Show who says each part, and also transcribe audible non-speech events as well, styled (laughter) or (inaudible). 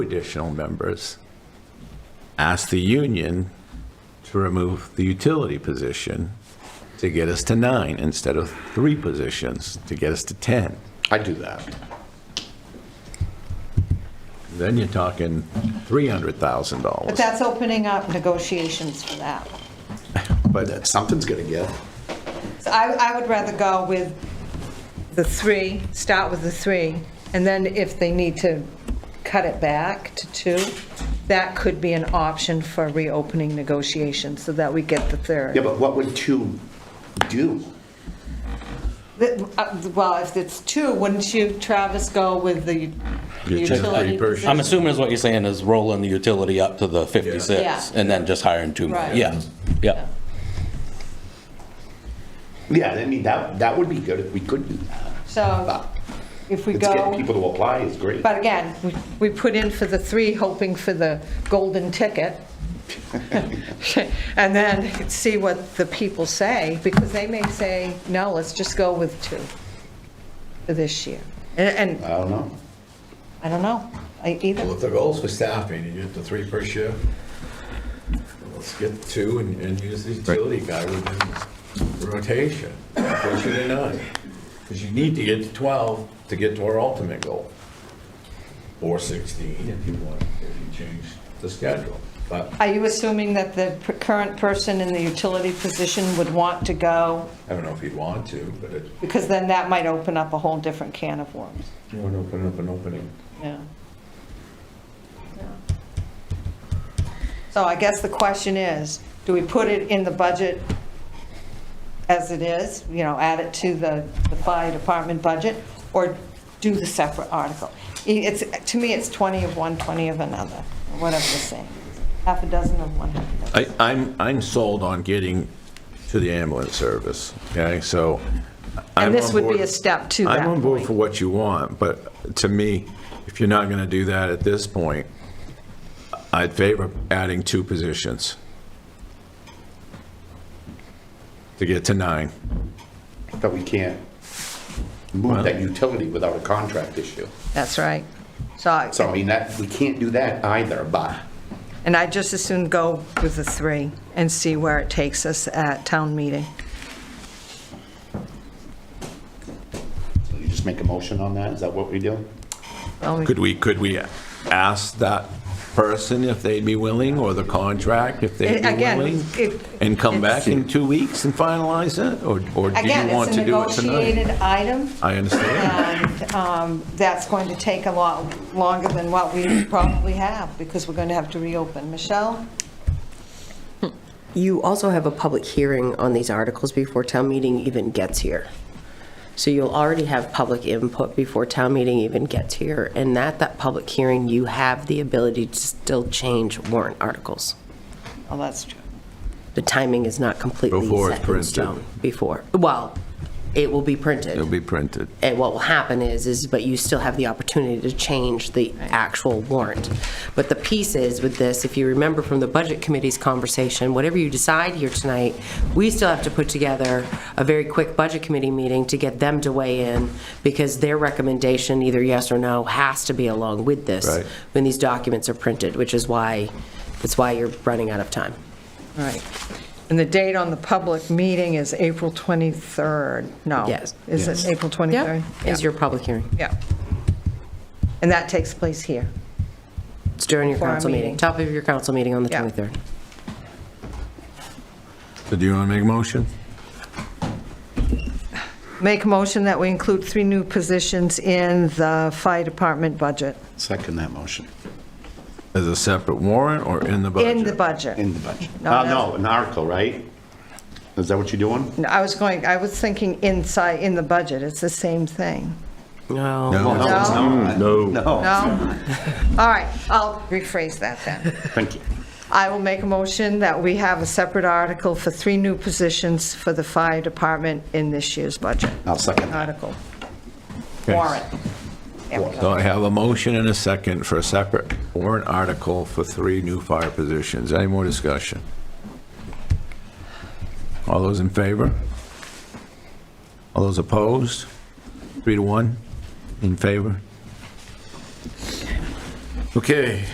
Speaker 1: additional members, ask the union to remove the utility position to get us to nine instead of three positions to get us to 10.
Speaker 2: I'd do that.
Speaker 1: Then you're talking
Speaker 3: But
Speaker 1: $300,000.
Speaker 3: that's opening up negotiations for that.
Speaker 1: But
Speaker 2: That something's gonna get.
Speaker 3: So I, I would rather go with the three, start with the three, and then if they need to cut it back to two, that could be an option for reopening negotiations so that we get the third.
Speaker 2: Yeah, but what would two do?
Speaker 3: The- uh, Well, if it's two, wouldn't you, Travis, go with the
Speaker 1: You take
Speaker 3: utility
Speaker 1: three person.
Speaker 3: position?
Speaker 4: I'm assuming is what you're saying is rolling the utility up to the
Speaker 3: Yeah.
Speaker 4: 56 and then just hiring two more.
Speaker 3: Right.
Speaker 4: Yeah, yeah.
Speaker 2: Yeah, I mean, that, that would be good if we could do that.
Speaker 3: So if we
Speaker 2: It's getting
Speaker 3: go,
Speaker 2: people to apply is great.
Speaker 3: but again, we- we put in for the three, hoping for the golden ticket. (laughs) And then see what the people say, because they may say, no, let's just go with two for this year. And, and
Speaker 2: I don't know.
Speaker 3: I don't know, I- either.
Speaker 1: if the goal's for staffing, you get the three per shift, let's get two and, and use the utility guy within rotation, push it to nine. Because you need to get to 12 to get to our ultimate goal. Or 16 if you want, if you change the schedule. But
Speaker 3: Are you assuming that the p- current person in the utility position would want to go?
Speaker 1: I don't know if you'd want to, but it.
Speaker 3: Because then that might open up a whole different can of worms,
Speaker 1: You want to open up an opening.
Speaker 3: yeah. So I guess the question is, do we put it in the budget as it is, you know, add it to the, the fire department budget, or do the separate article? I- It's, to me, it's 20 of one, 20 of another, or whatever the saying, is. half a dozen of one, half a dozen.
Speaker 1: I, I'm, I'm sold on getting to the ambulance service, okay, so. I'm
Speaker 3: And this
Speaker 1: on
Speaker 3: would be
Speaker 1: board-
Speaker 3: a step to that
Speaker 1: I'm on board
Speaker 3: point.
Speaker 1: for what you want, but to me, if you're not gonna do that at this point, I'd favor adding two positions. To get to nine.
Speaker 2: But we can't move that utility without a contract issue.
Speaker 3: That's right. So, I-
Speaker 2: So I mean, that, we can't do that either, but
Speaker 3: and I just as soon go with the three and see where it takes us at town meeting.
Speaker 2: you just make a motion on that? Is that what we do?
Speaker 3: Well, we-
Speaker 1: Could we, could we ask that person if they'd be willing, or the contract if they'd be
Speaker 3: Again,
Speaker 1: willing?
Speaker 3: it-
Speaker 1: And come back in
Speaker 2: it's-
Speaker 1: two weeks and finalize it, or, or do
Speaker 3: Again,
Speaker 1: you want
Speaker 3: it's a
Speaker 1: to do it tonight?
Speaker 3: negotiated item,
Speaker 1: I understand.
Speaker 3: and um, that's going to take a lot longer than what we probably have, because we're going to have to reopen. Michelle?
Speaker 5: You also have a public hearing on these articles before town meeting even gets here. So you'll already have public input before town meeting even gets here. And at that public hearing, you have the ability to still change warrant articles.
Speaker 3: Oh, that's true.
Speaker 5: The timing is not completely
Speaker 1: Before it's
Speaker 5: set in
Speaker 1: printed.
Speaker 5: stone. Before, well, it will be
Speaker 1: It'll
Speaker 5: printed.
Speaker 1: be printed.
Speaker 5: And what will happen is, is, but you still have the opportunity to change the actual warrant. But the piece is with this, if you remember from the Budget Committee's conversation, whatever you decide here tonight, we still have to put together a very quick Budget Committee meeting to get them to weigh in, because their recommendation, either yes or no, has to be along with this
Speaker 1: Right.
Speaker 5: when these documents are printed, which is why, that's why you're running out of time.
Speaker 3: All Right. And the date on the public meeting is April 23rd? No.
Speaker 5: Yes.
Speaker 3: Is it April 23rd?
Speaker 5: Is your public hearing.
Speaker 3: Yeah. And that takes place here.
Speaker 5: It's during your
Speaker 3: For our
Speaker 5: council
Speaker 3: meeting.
Speaker 5: meeting, top of your council meeting on the
Speaker 3: Yeah.
Speaker 5: 23rd.
Speaker 1: So do you want to make a motion?
Speaker 3: Make a motion that we include three new positions in the fire department budget,
Speaker 2: Second that motion.
Speaker 1: As a separate warrant or in the budget?
Speaker 3: in the budget.
Speaker 2: the budget.
Speaker 3: No,
Speaker 2: Uh, no, an article, right? Is that what you're doing?
Speaker 3: No, I was going, I was thinking inside, in the budget, it's the same thing.
Speaker 1: No.
Speaker 2: No, it's not. No.
Speaker 3: No? All right, I'll rephrase that then.
Speaker 2: Thank you.
Speaker 3: I will make a motion that we have a separate article for three new positions for the fire department in this year's budget.
Speaker 2: I'll second that.
Speaker 3: Article,
Speaker 1: Okay.
Speaker 3: warrant. There we go.
Speaker 1: So I have a motion and a second for a separate warrant article for three new fire positions. Any more discussion? All those in favor? All those opposed? Three to one in favor? Okay,